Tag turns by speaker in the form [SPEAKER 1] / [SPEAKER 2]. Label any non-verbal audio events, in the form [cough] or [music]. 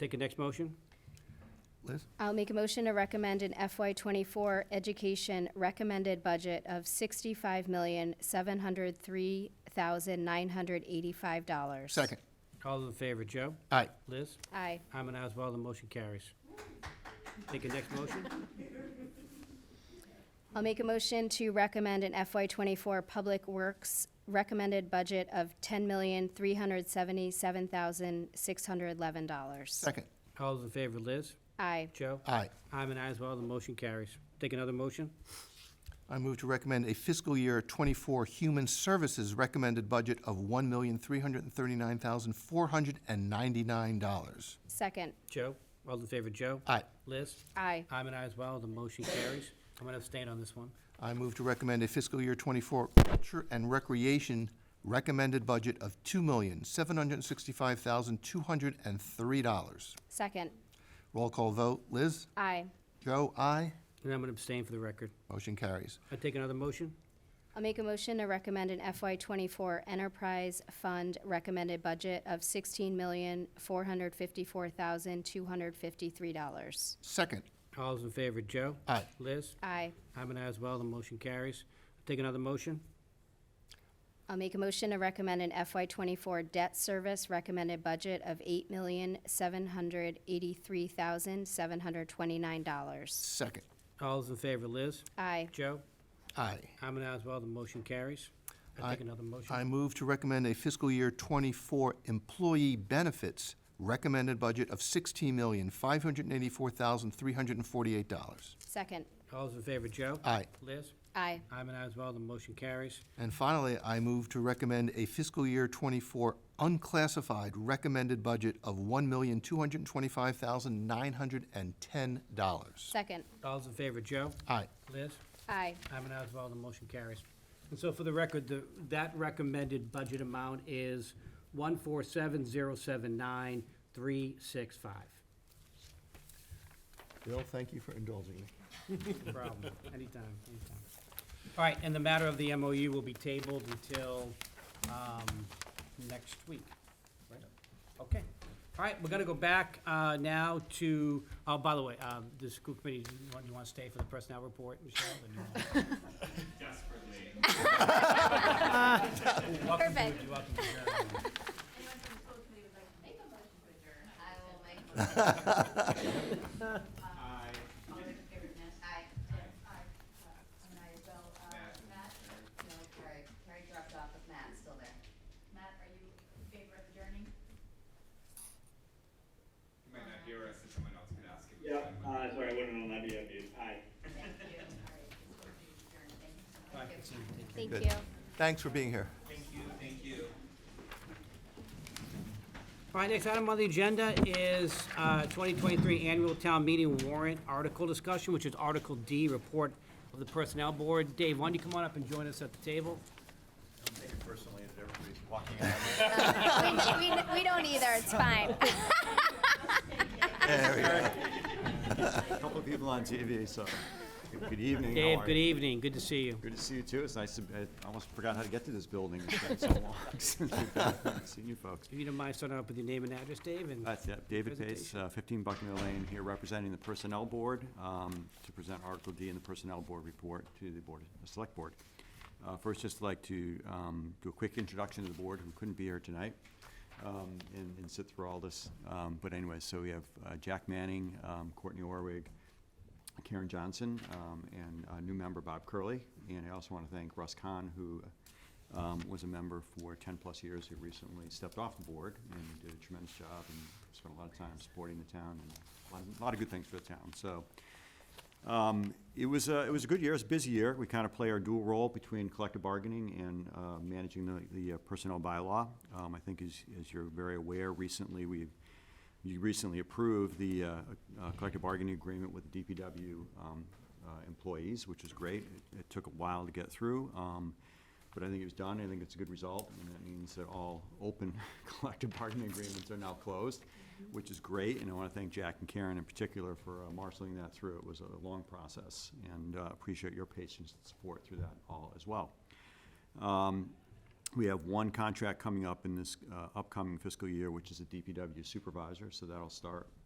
[SPEAKER 1] Take a next motion.
[SPEAKER 2] Liz?
[SPEAKER 3] I'll make a motion to recommend an FY twenty-four education recommended budget of sixty-five million, seven hundred three thousand, nine hundred eighty-five dollars.
[SPEAKER 2] Second.
[SPEAKER 1] All those in favor, Joe?
[SPEAKER 2] Aye.
[SPEAKER 1] Liz?
[SPEAKER 3] Aye.
[SPEAKER 1] I'm an aye as well, the motion carries. Take a next motion.
[SPEAKER 3] I'll make a motion to recommend an FY twenty-four Public Works recommended budget of ten million, three hundred seventy-seven thousand, six hundred eleven dollars.
[SPEAKER 2] Second.
[SPEAKER 1] All those in favor, Liz?
[SPEAKER 3] Aye.
[SPEAKER 1] Joe?
[SPEAKER 2] Aye.
[SPEAKER 1] I'm an aye as well, the motion carries. Take another motion.
[SPEAKER 2] I move to recommend a fiscal year '24 Human Services recommended budget of $1,339,499.
[SPEAKER 3] Second.
[SPEAKER 1] Joe? All those in favor, Joe?
[SPEAKER 2] Aye.
[SPEAKER 1] Liz?
[SPEAKER 3] Aye.
[SPEAKER 1] I'm an aye as well, the motion carries. I'm gonna abstain on this one.
[SPEAKER 2] I move to recommend a fiscal year '24 Culture and Recreation recommended budget of $2,765,203.
[SPEAKER 3] Second.
[SPEAKER 2] Roll call vote, Liz?
[SPEAKER 3] Aye.
[SPEAKER 2] Joe? Aye.
[SPEAKER 1] And I'm gonna abstain for the record.
[SPEAKER 2] Motion carries.
[SPEAKER 1] I take another motion.
[SPEAKER 3] I'll make a motion to recommend an FY twenty-four enterprise fund recommended budget of sixteen million, four hundred fifty-four thousand, two hundred fifty-three dollars.
[SPEAKER 2] Second.
[SPEAKER 1] All those in favor, Joe?
[SPEAKER 2] Aye.
[SPEAKER 1] Liz?
[SPEAKER 3] Aye.
[SPEAKER 1] I'm an aye as well, the motion carries. Take another motion.
[SPEAKER 3] I'll make a motion to recommend an FY twenty-four debt service recommended budget of eight million, seven hundred eighty-three thousand, seven hundred twenty-nine dollars.
[SPEAKER 2] Second.
[SPEAKER 1] All those in favor, Liz?
[SPEAKER 3] Aye.
[SPEAKER 1] Joe?
[SPEAKER 2] Aye.
[SPEAKER 1] I'm an aye as well, the motion carries. I
[SPEAKER 2] I-
[SPEAKER 1] take another motion.
[SPEAKER 2] I move to recommend a fiscal year '24 employee benefits recommended budget of $16,584,348.
[SPEAKER 3] Second.
[SPEAKER 1] All those in favor, Joe?
[SPEAKER 2] Aye.
[SPEAKER 1] Liz?
[SPEAKER 3] Aye.
[SPEAKER 1] I'm an aye as well, the motion carries.
[SPEAKER 2] And finally, I move to recommend a fiscal year '24 unclassified recommended budget of $1,225,910.
[SPEAKER 3] Second.
[SPEAKER 1] All those in favor, Joe?
[SPEAKER 2] Aye.
[SPEAKER 1] Liz?
[SPEAKER 3] Aye.
[SPEAKER 1] I'm an aye as well, the motion carries. And so for the record, the, that recommended budget amount is one four seven zero seven nine three six five.
[SPEAKER 2] Bill, thank you for indulging me. [laughs]
[SPEAKER 1] No problem, anytime, anytime. All right, and the matter of the MOU will be tabled until, um, next week. right? Okay, all right, we're gonna go back, uh, now to, oh, by the way, uh, the school committee, do you want, you wanna stay for the personnel report, Michelle? or do you want-
[SPEAKER 4] desperately.
[SPEAKER 1] You're welcome to-
[SPEAKER 3] Perfect.
[SPEAKER 1] you're welcome to adjourn.
[SPEAKER 5] Anyone from the school committee would like to make a motion to adjourn? I will make.
[SPEAKER 4] I
[SPEAKER 5] All those in favor, Ness? Aye. Aye. And I will, uh, Matt? No, Carrie, Carrie dropped off, but Matt's still there. Matt, are you in favor of adjourning?
[SPEAKER 4] you might not hear us if someone else could ask it.
[SPEAKER 6] Yeah, uh, sorry, I wouldn't allow you, aye.
[SPEAKER 5] Thank you. All right, this will
[SPEAKER 1] Bye, Katrina.
[SPEAKER 5] be adjourned. Thank you so much.
[SPEAKER 1] Take care.
[SPEAKER 3] Thank
[SPEAKER 2] Good.
[SPEAKER 3] you.
[SPEAKER 2] Thanks for being here.
[SPEAKER 4] Thank you, thank you.
[SPEAKER 1] All right, next item on the agenda is uh, 2023 Annual Town Meeting Warrant Article Discussion, which is Article D, Report of the Personnel Board. Dave, why don't you come on up and join us at the table?
[SPEAKER 7] take it personally that everybody's walking out.
[SPEAKER 3] We, we- we don't either, it's fine.
[SPEAKER 7] A couple of people on TV, so good evening. how
[SPEAKER 1] Dave,
[SPEAKER 7] are
[SPEAKER 1] good e-
[SPEAKER 7] you?
[SPEAKER 1] evening, good to see you.
[SPEAKER 7] Good to see you too. It's nice to, I almost forgot how to get to this building. It's been so long [laughs] since we've been- seen you folks.
[SPEAKER 1] If you don't mind starting off with your name and address, Dave, and
[SPEAKER 7] That's it. David Pace,
[SPEAKER 1] Presentation.
[SPEAKER 7] uh, 15 Buckner Lane, here representing the Personnel Board um, to present Article D in the Personnel Board report to the Board, the Select Board. Uh, First, just like to um, do a quick introduction to the board who couldn't be here tonight um, and and sit through all this. Um, But anyway, so we have uh, Jack Manning, um, Courtney Orwig, Karen Johnson, um, and a new member, Bob Curley. And I also want to thank Russ Kahn, who um, was a member for 10-plus years, who recently stepped off the board and did a tremendous job and spent a lot of time supporting the town and a lot- a lot of good things for the town. So um, It was, a- it was a good year, it was a busy year. We kind of play our dual role between collective bargaining and uh, managing the- the uh, personnel bylaw. Um, I think as, as you're very aware, recently, we, you recently approved the uh, uh, collective bargaining agreement with the DPW um, uh, employees, which is great. It- It took a while to get through, um, but I think it was done, I think it's a good result, and that means that all open [laughs] collective bargaining agreements are now closed, which is great, and I want to thank Jack and Karen in particular for uh, marshaling that through. It was a long process, and uh, appreciate your patience and support through that all as well. Um, We have one contract coming up in this uh, upcoming fiscal year, which is a DPW supervisor, so that'll start